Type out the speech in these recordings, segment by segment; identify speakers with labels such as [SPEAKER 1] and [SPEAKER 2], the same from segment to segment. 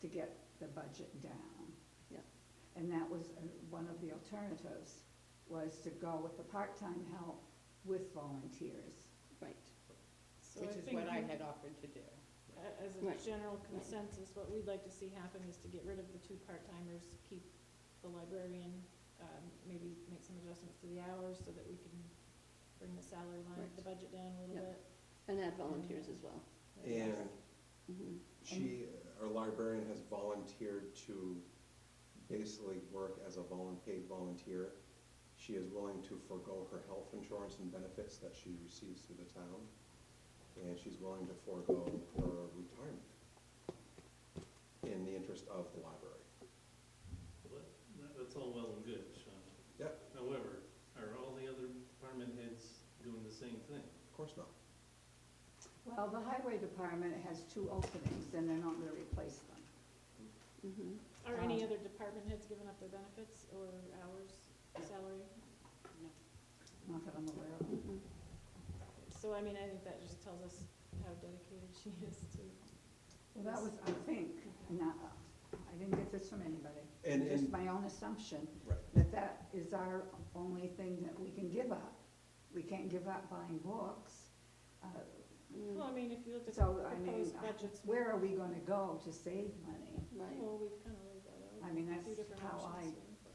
[SPEAKER 1] to get the budget down.
[SPEAKER 2] Yep.
[SPEAKER 1] And that was uh, one of the alternatives, was to go with the part-time help with volunteers.
[SPEAKER 2] Right,
[SPEAKER 3] So
[SPEAKER 2] which
[SPEAKER 3] I
[SPEAKER 2] is
[SPEAKER 3] think
[SPEAKER 2] what I
[SPEAKER 3] you-
[SPEAKER 2] had offered to do.
[SPEAKER 3] a- As a
[SPEAKER 2] Right.
[SPEAKER 3] general consensus, what we'd like to see happen is to get rid of the two part-timers, keep the librarian, um, maybe make some adjustments to the hours so that we can bring the salary line,
[SPEAKER 2] Right.
[SPEAKER 3] the budget down a little
[SPEAKER 2] Yeah.
[SPEAKER 3] bit.
[SPEAKER 2] And add volunteers as well.
[SPEAKER 4] And
[SPEAKER 2] Mhm.
[SPEAKER 4] she, our librarian has volunteered to basically work as a volun, paid volunteer. She is willing to forego her health insurance and benefits that she receives through the town. And she's willing to forego her retirement in the interest of the library.
[SPEAKER 5] Well, that- That's all well and good, Sean.
[SPEAKER 4] Yep.
[SPEAKER 5] However, are all the other department heads doing the same thing?
[SPEAKER 4] Of course not.
[SPEAKER 1] Well, the highway department has two openings, and they're not gonna replace them.
[SPEAKER 2] Mhm.
[SPEAKER 3] Are any
[SPEAKER 1] Um,
[SPEAKER 3] other department heads giving up their benefits or hours, salary?
[SPEAKER 1] Not that I'm aware of.
[SPEAKER 2] Mhm.
[SPEAKER 3] So I mean, I think that just tells us how dedicated she is to.
[SPEAKER 1] Well, that was, I think, not, I didn't get this from anybody.
[SPEAKER 4] And,
[SPEAKER 1] Just
[SPEAKER 4] and,
[SPEAKER 1] my own assumption,
[SPEAKER 4] right,
[SPEAKER 1] that that is our only thing that we can give up. We can't give up buying books. Uh,
[SPEAKER 2] Mm,
[SPEAKER 3] Well, I mean, if you look at the
[SPEAKER 1] So, I mean,
[SPEAKER 3] proposed budgets, we-
[SPEAKER 1] where are we gonna go to save money?
[SPEAKER 2] Right,
[SPEAKER 3] well, we've kind of laid that out.
[SPEAKER 1] I mean,
[SPEAKER 3] a few
[SPEAKER 1] that's
[SPEAKER 3] different
[SPEAKER 1] how I,
[SPEAKER 3] options here.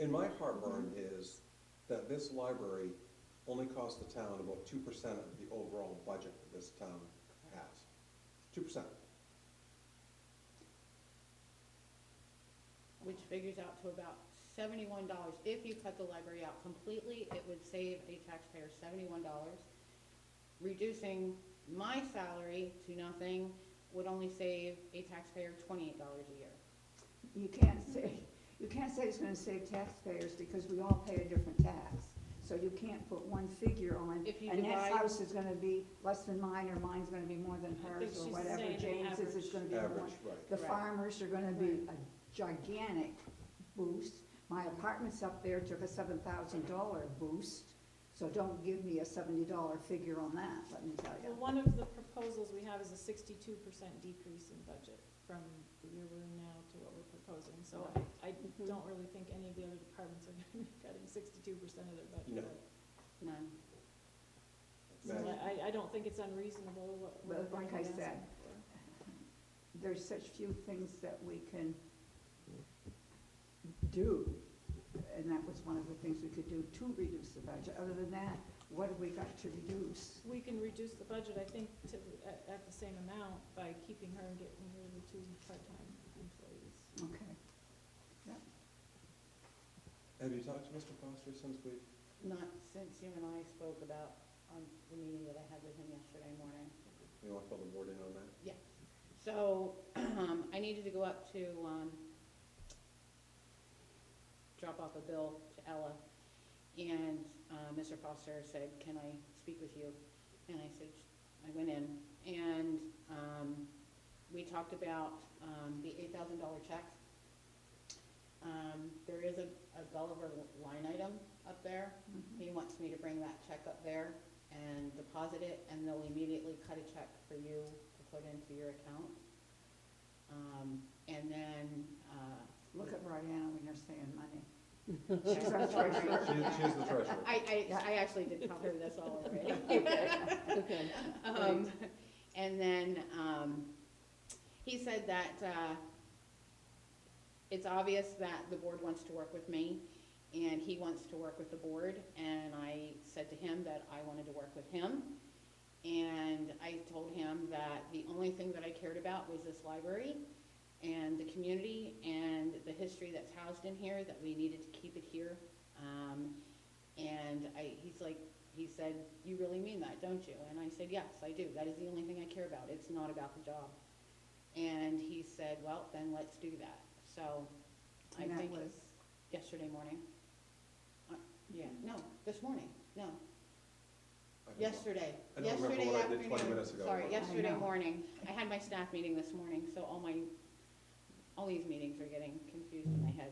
[SPEAKER 4] and my heartburn is that this library only costs the town about two percent of the overall budget that this town has. Two percent.
[SPEAKER 2] which figures out to about seventy-one dollars. If you cut the library out completely, it would save a taxpayer seventy-one dollars. Reducing my salary to nothing would only save a taxpayer twenty-eight dollars a year.
[SPEAKER 1] you can't say, you can't say it's gonna save taxpayers because we all pay a different tax. So you can't put one figure on,
[SPEAKER 2] If you
[SPEAKER 1] Annette's
[SPEAKER 2] divide-
[SPEAKER 1] house is gonna be less than mine, or mine's gonna be more than
[SPEAKER 3] I
[SPEAKER 1] hers,
[SPEAKER 3] think
[SPEAKER 1] or
[SPEAKER 3] she's
[SPEAKER 1] whatever
[SPEAKER 3] saying
[SPEAKER 1] James's is
[SPEAKER 3] average.
[SPEAKER 1] gonna be more.
[SPEAKER 4] Average, right.
[SPEAKER 1] The
[SPEAKER 2] Right.
[SPEAKER 1] farmers are gonna be a gigantic boost. My apartments up there took a seven thousand dollar boost, so don't give me a seventy dollar figure on that, let me tell
[SPEAKER 3] Well,
[SPEAKER 1] you.
[SPEAKER 3] one of the proposals we have is a sixty-two percent decrease in budget from where we're now to what we're proposing. So I, I
[SPEAKER 2] Mhm.
[SPEAKER 3] don't really think any of the other departments are gonna be cutting sixty-two percent of their budget.
[SPEAKER 4] No.
[SPEAKER 2] No.
[SPEAKER 3] So
[SPEAKER 4] Right.
[SPEAKER 3] I, I don't think it's unreasonable what.
[SPEAKER 1] Well,
[SPEAKER 3] what
[SPEAKER 1] like
[SPEAKER 3] we're
[SPEAKER 1] I said,
[SPEAKER 3] asking for.
[SPEAKER 1] There's such few things that we can do, and that was one of the things we could do to reduce the budget. Other than that, what have we got to reduce?
[SPEAKER 3] We can reduce the budget, I think, to, at, at the same amount by keeping her and getting rid of the two part-time employees.
[SPEAKER 1] Okay,
[SPEAKER 4] Have you talked to Mr. Foster since we,
[SPEAKER 2] Not since you and I spoke about, on the meeting that I had with him yesterday morning.
[SPEAKER 4] you want to fill the board in on that?
[SPEAKER 2] Yes. So, um, I needed to go up to, um, drop off a bill to Ella. And, uh, Mr. Foster said, can I speak with you? And I said, I went in and, um, we talked about, um, the eight thousand dollar check. Um, there is a, a Gulliver line item up there.
[SPEAKER 1] mhm,
[SPEAKER 2] He wants me to bring that check up there and deposit it, and they'll immediately cut a check for you to put into your account. Um, and then, uh,
[SPEAKER 1] look at Brianna when you're saying money.
[SPEAKER 2] She's our treasurer.
[SPEAKER 4] She, she's the treasurer.
[SPEAKER 2] I, I, I actually did tell her this all already.
[SPEAKER 6] Okay,
[SPEAKER 2] Um, and then, um, he said that, uh, it's obvious that the board wants to work with me and he wants to work with the board. And I said to him that I wanted to work with him. And I told him that the only thing that I cared about was this library and the community and the history that's housed in here, that we needed to keep it here. Um, and I, he's like, he said, you really mean that, don't you? And I said, yes, I do. That is the only thing I care about. It's not about the job. And he said, well, then let's do that. So I
[SPEAKER 1] And that
[SPEAKER 2] think
[SPEAKER 1] was,
[SPEAKER 2] yesterday morning. Uh, Yeah, no, this morning, no,
[SPEAKER 4] I don't know.
[SPEAKER 2] yesterday,
[SPEAKER 4] I don't remember
[SPEAKER 2] yesterday
[SPEAKER 4] what I did 20
[SPEAKER 2] afternoon.
[SPEAKER 4] minutes ago.
[SPEAKER 2] Sorry, yesterday
[SPEAKER 1] know.
[SPEAKER 2] morning. I had my staff meeting this morning, so all my, all these meetings are getting confused in my head.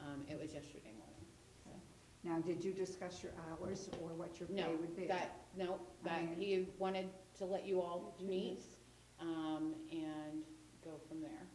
[SPEAKER 2] Um, it was yesterday morning.
[SPEAKER 1] now, did you discuss your hours or what your
[SPEAKER 2] No,
[SPEAKER 1] pay would be?
[SPEAKER 2] That, no, that,
[SPEAKER 1] I-
[SPEAKER 2] he wanted to let you all meet, um, and go from there.